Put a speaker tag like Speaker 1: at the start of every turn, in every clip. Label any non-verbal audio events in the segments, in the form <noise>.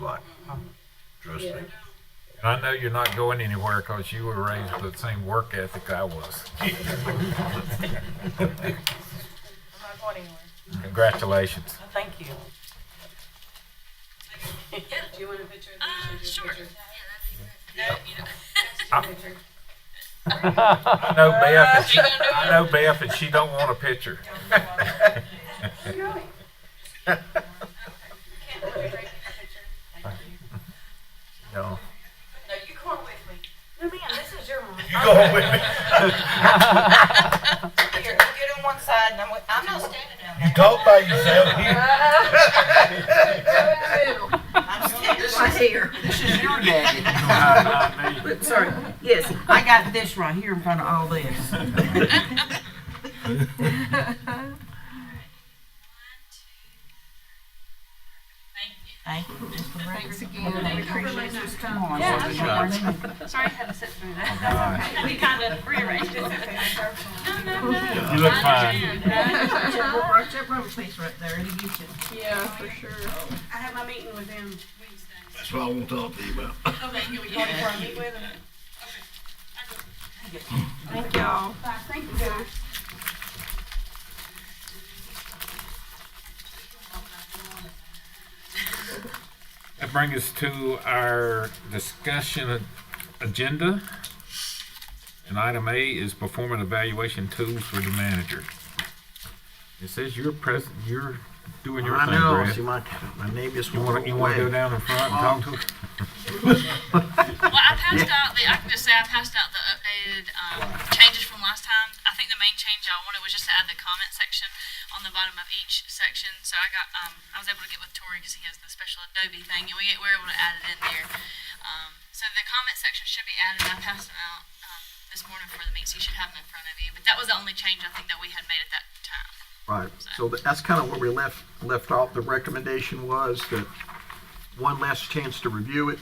Speaker 1: like, trust me.
Speaker 2: <laughs> And I know you're not going anywhere because you were raised with the same work ethic
Speaker 1: <laughs>
Speaker 2: I was.
Speaker 3: I'm not going anywhere.
Speaker 2: Congratulations.
Speaker 3: No, Thank you.
Speaker 4: Do you want a picture?
Speaker 5: Uh, sure. Yeah, that'd be great. No, you know.
Speaker 3: Oh.
Speaker 2: I know
Speaker 4: Uh,
Speaker 2: Beth, and she, I know Beth, and she don't want
Speaker 1: <laughs>
Speaker 2: a picture.
Speaker 3: <laughs>
Speaker 2: No.
Speaker 4: No, you come on with me.
Speaker 3: No, ma'am, this
Speaker 4: <laughs>
Speaker 3: is your mom.
Speaker 1: You go home with me.
Speaker 4: Here, you get on one side and I'm, with- I'm not standing down
Speaker 1: You
Speaker 4: there.
Speaker 1: talk by yourself here.
Speaker 4: I'm standing
Speaker 6: Right
Speaker 4: right
Speaker 6: here.
Speaker 7: This
Speaker 6: <laughs>
Speaker 7: is your daddy.
Speaker 6: Sorry. Yes, I got this right here in front of all
Speaker 4: <laughs>
Speaker 6: this.
Speaker 4: Thank you. Just for the record.
Speaker 6: <laughs>
Speaker 5: Sorry I had to sit through that. That's okay. We kind of rearranged it. No, no, no.
Speaker 2: You look
Speaker 5: I
Speaker 2: fine.
Speaker 5: understand.
Speaker 4: Yeah, for sure.
Speaker 5: I have my meeting with him Wednesday.
Speaker 7: That's what I want to talk to you about.
Speaker 5: Okay, here we go. Before I meet with him.
Speaker 4: Thank y'all.
Speaker 5: Bye. Thank you guys.
Speaker 2: That brings us to our discussion a- agenda. And item A is performing evaluation tools for the manager. It says you're present, you're doing your
Speaker 7: I
Speaker 2: thing,
Speaker 7: know, see
Speaker 2: Brad.
Speaker 7: my, my name is.
Speaker 2: You wanna, you wanna go down in front and talk to us?
Speaker 5: Well, I passed out the, I can just say I passed out the updated um, changes from last time. I think the main change I wanted was just to add the comment section on the bottom of each section. So I got, um, I was able to get with Tori because he has the special Adobe thing, and we, we were able to add it in there. Um, so the comment section should be added. I passed them out um, this morning for the meet, so you should have them in front of you. But that was the only change I think that we had made at that time.
Speaker 7: Right, so tha- that's kind of where we left, left off. The recommendation was that one last chance to review it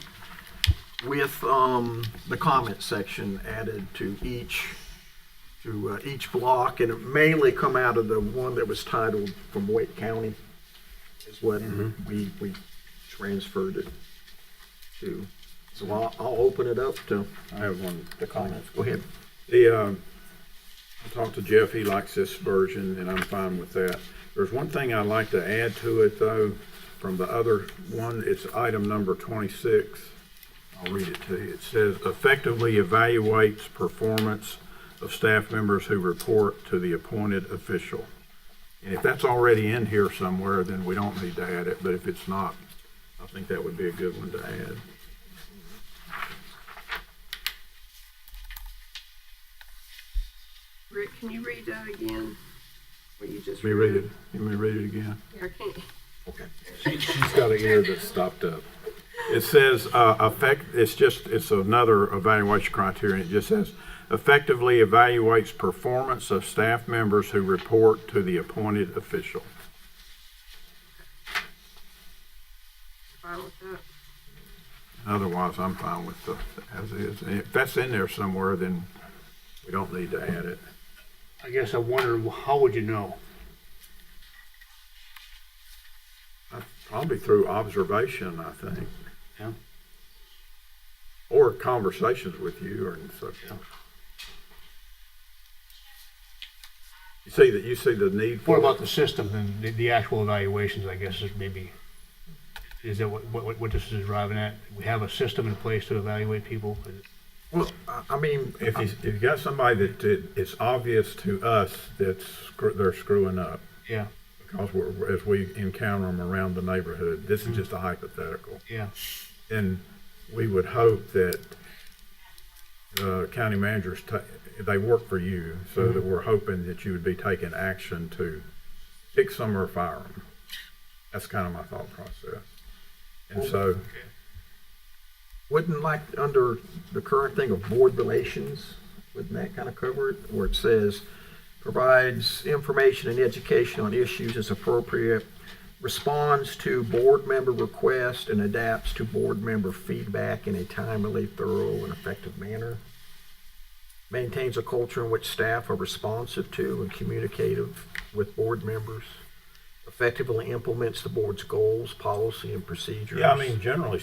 Speaker 7: with, um, the comment section added to each, to, uh, each block, and it mainly come out of the one that was titled from Wake County is what
Speaker 8: Mm-hmm.
Speaker 7: we, we transferred it to. So I'll, I'll open it up to
Speaker 8: I have one.
Speaker 7: the comments. Go ahead.
Speaker 8: The, um, I talked to Jeff, he likes this version, and I'm fine with that. There's one thing I'd like to add to it, though, from the other one, it's item number twenty-six. I'll read it to you. It says effectively evaluates performance of staff members who report to the appointed official. And if that's already in here somewhere, then we don't need to add it, but if it's not, I think that would be a good one to add.
Speaker 9: Rick, can you read that again? What you just
Speaker 8: Let me read it, let me read it again.
Speaker 9: I can't.
Speaker 8: She's got an ear that's stopped up. It says, uh, effect, it's just, it's another evaluation criteria, it just says, effectively evaluates performance of staff members who report to the appointed official.
Speaker 9: file with that.
Speaker 8: Otherwise, I'm fine with the, as is, And if that's in there somewhere, then we don't need to add it.
Speaker 10: I guess I wonder, how would you know?
Speaker 8: Probably through observation, I think.
Speaker 10: Yeah.
Speaker 8: Or conversations with you or and so forth. You see that, you see the need for.
Speaker 10: What about the system and the, the actual evaluations, I guess, is maybe, is that what, what, what this is driving at? We have a system in place to evaluate people?
Speaker 8: Well, I- I mean, if you, if you got somebody that it- it's obvious to us that screw- they're screwing up,
Speaker 10: Yeah,
Speaker 8: because we're, as we encounter them around the neighborhood, this is just a hypothetical.
Speaker 10: yeah.
Speaker 8: And we would hope that the county managers, ta- they work for you, so that we're hoping that you would be taking action to pick some or fire them. That's kind of my thought process. And so,
Speaker 7: Wouldn't like, under the current thing of board relations, wouldn't that kind of cover it? Where it says, provides information and education on issues as appropriate, responds to board member requests, and adapts to board member feedback in a timely, thorough, and effective manner. Maintains a culture in which staff are responsive to and communicative with board members. effectively implements the board's goals, policy, and procedures.
Speaker 8: Yeah, I mean, generally